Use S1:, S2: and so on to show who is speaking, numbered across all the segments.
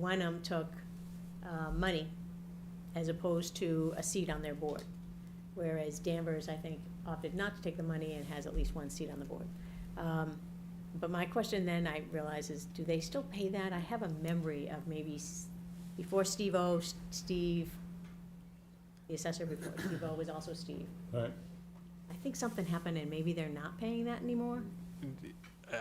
S1: Wenham Umm took uh, money as opposed to a seat on their board. Whereas Danvers, I think, opted not to take the money and has at least one seat on the board. Um, But my question then, I realize, is do they still pay that? I have a memory of maybe s- before Steve O, S- Steve, the assessor before Steve O was also Steve.
S2: Right.
S1: I think something happened and maybe they're not paying that anymore?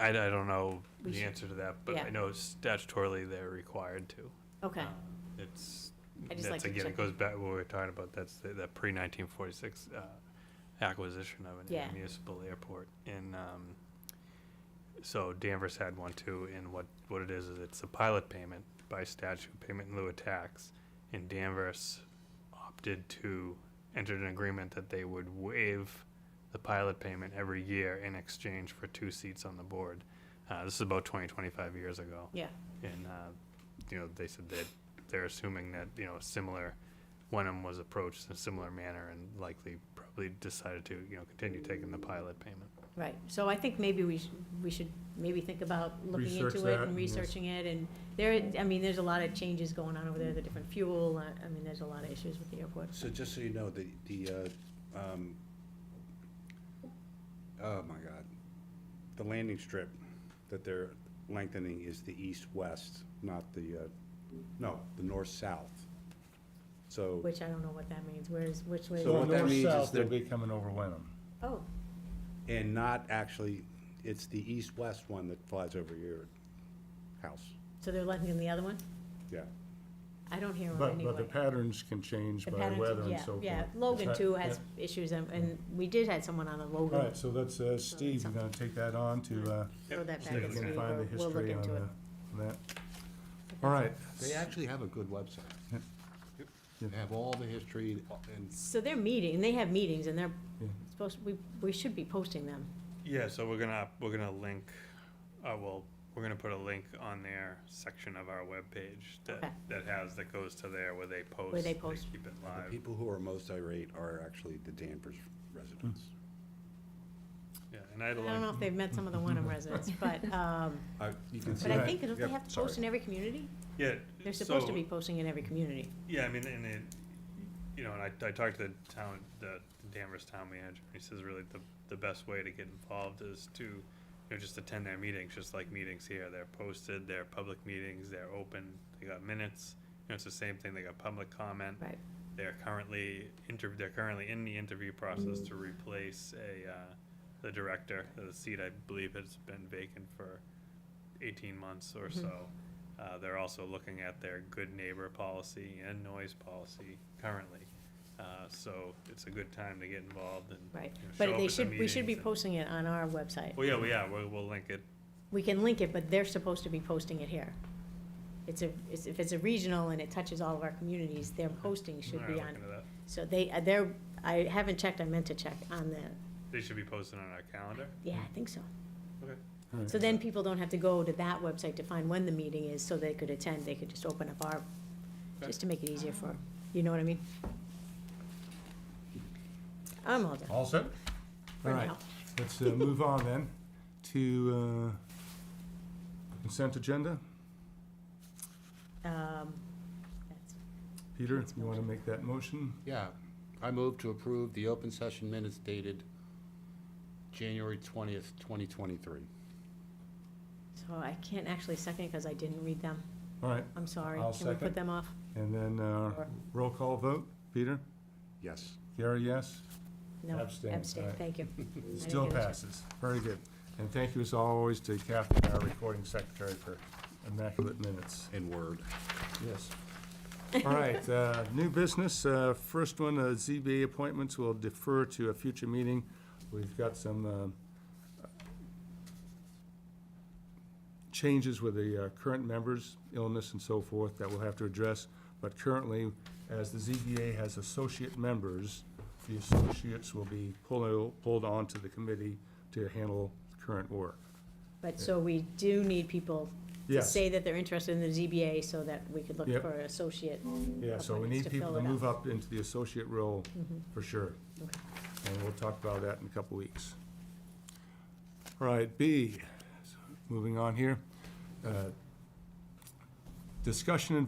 S3: I, I don't know
S1: We
S3: the
S1: should-
S3: answer to that, but
S1: yeah.
S3: I know statutorily they're required to.
S1: Okay,
S3: Um, It's,
S1: I just
S3: that's
S1: like to
S3: again,
S1: check.
S3: it goes back to what we were talking about, that's the, that pre nineteen forty-six, uh, acquisition of
S1: Yeah.
S3: an municipal airport and, um, so Danvers had one too, and what, what it is, is it's a pilot payment by statute, payment in lieu of tax. And Danvers opted to enter an agreement that they would waive the pilot payment every year in exchange for two seats on the board. Uh, this is about 20, 25 years ago.
S1: yeah,
S3: And, uh, you know, they said that they're assuming that, you know, similar, Wenham was approached in a similar manner and likely probably decided to, you know, continue taking the pilot payment.
S1: right. So I think maybe we should, we should maybe think about looking
S2: Research
S1: into
S2: that
S1: it and
S2: and yes.
S1: researching it. And there, I mean, there's a lot of changes going on over there, the different fuel, uh, I I mean, there's a lot of issues with the airport.
S4: So just so you know, the, the, uh, um, oh my God, the landing strip that they're lengthening is the east-west, not the, uh, no, the north-south. So,
S1: Which I don't know what that means, where's, which way? is
S4: So
S2: So
S4: what that means is
S2: north-south, they'll
S4: that-
S2: be coming over Wenham.
S1: it? Oh,
S4: and not actually, it's the east-west one that flies over your house,
S1: so they're letting in the other one?
S4: yeah.
S1: I don't hear them
S2: But, but the
S1: anyway.
S2: patterns can change
S1: The
S2: by
S1: patterns-
S2: weather and
S1: yeah,
S2: so forth.
S1: Yeah, Logan
S2: Right,
S1: too has
S2: yeah.
S1: issues, and, and we did have someone on the
S2: All
S1: Logan.
S2: right, so that's, uh, Steve, you're gonna take that on to, uh,
S1: Throw that
S2: see if
S1: back
S2: you
S1: to
S2: can
S1: me,
S2: find the
S1: we'll, we'll look
S2: history on
S1: into
S2: uh,
S1: it.
S2: on that. All right,
S5: They actually have a good website.
S2: Yeah.
S5: Yep. They have all the history and
S1: So they're meeting, they have meetings, and they're
S2: Yeah.
S1: supposed, we, we should be posting them.
S3: Yeah, so we're gonna, we're gonna link, uh, well, we're gonna put a link on their section of our webpage
S1: Okay.
S3: that, that has, that goes to there where they post.
S1: they post.
S3: Keep it
S4: The
S3: live,
S4: people who are most irate are actually the Danvers residents.
S3: yeah, and I had
S1: I
S3: a
S1: don't know
S3: link,
S1: if they've met some of the Wenham residents, but, um,
S5: Hmm.
S4: Uh, you can see
S1: but I
S4: that.
S1: think, don't they
S4: Yep,
S1: have to
S4: sorry.
S1: post in every community?
S3: yeah.
S1: They're supposed to
S3: so-
S1: be posting in every community.
S3: Yeah, I mean, and it, you know, and I, I talked to the town, the Danvers town manager, and he says really the, the best way to get involved is to, you know, just attend their meetings, just like meetings here, they're posted, they're public meetings, they're open, they got minutes, you know, it's the same thing, they got public comment.
S1: Right.
S3: They're currently inter, they're currently in the interview process to replace a, uh, the director, the seat I believe has been vacant for eighteen months or
S1: Mm-hmm.
S3: so. Uh, they're also looking at their good neighbor policy and noise policy currently. Uh, so it's a good time to get involved and.
S1: Right,
S3: you know, show
S1: but
S3: up
S1: they
S3: at the
S1: should, we should be
S3: meetings and-
S1: posting it on our website.
S3: Well, yeah, we yeah, we'll, we'll link it.
S1: We can link it, but they're supposed to be posting it here. It's a, it's- if it's a regional and it touches all of our communities, their posting should
S3: Alright,
S1: be
S3: I'll
S1: on,
S3: look into that.
S1: so they, uh, they're, I haven't checked, I meant to check on the,
S3: They should be posted on our calendar.
S1: yeah, I think so.
S3: Okay.
S1: So then people don't have to go to that website to find when the meeting is, so they could attend, they could just open up our, just to make it easier for, you know what I mean? I'm all done,
S2: all set?
S1: for
S2: All right,
S1: now.
S2: let's uh, move on then to uh, consent agenda.
S1: Um, that's-
S2: Peter,
S1: Let's
S2: you wanna
S1: motion.
S2: make that motion?
S5: Yeah, I move to approve the open session minutes dated January twentieth, twenty twenty-three.
S1: So I can't actually second, because I didn't read them,
S2: All right,
S1: I'm sorry.
S2: I'll
S1: Can we put
S2: second.
S1: them off?
S2: and then uh,
S1: Sure.
S2: roll call vote, Peter?
S4: Yes.
S2: Gary, yes?
S1: No,
S2: Abstain,
S1: abstain,
S2: alright.
S1: thank you. I
S2: Still
S1: didn't get a check.
S2: passes. Very good. And thank you as always to Kathy, our recording secretary, for immaculate minutes.
S4: In word.
S2: Yes. All right, uh, new business. Uh, First one, uh, ZBA appointments will defer to a future meeting. We've got some um, changes with the uh, current members, illness and so forth, that we'll have to address. But currently, as the ZBA has associate members, the associates will be pulled, pulled onto the committee to handle current work.
S1: But so we do need people to
S2: Yes.
S1: say that they're interested in the ZBA, so that we could look
S2: Yep.
S1: for an associate.
S2: Yeah, so we
S1: appointments
S2: need
S1: to
S2: people
S1: fill
S2: to
S1: it Mm-hmm.
S2: move up into the associate role, for sure.
S1: Okay.
S2: And we'll talk about that in a couple weeks. All right, B, moving on here. Uh, Discussion and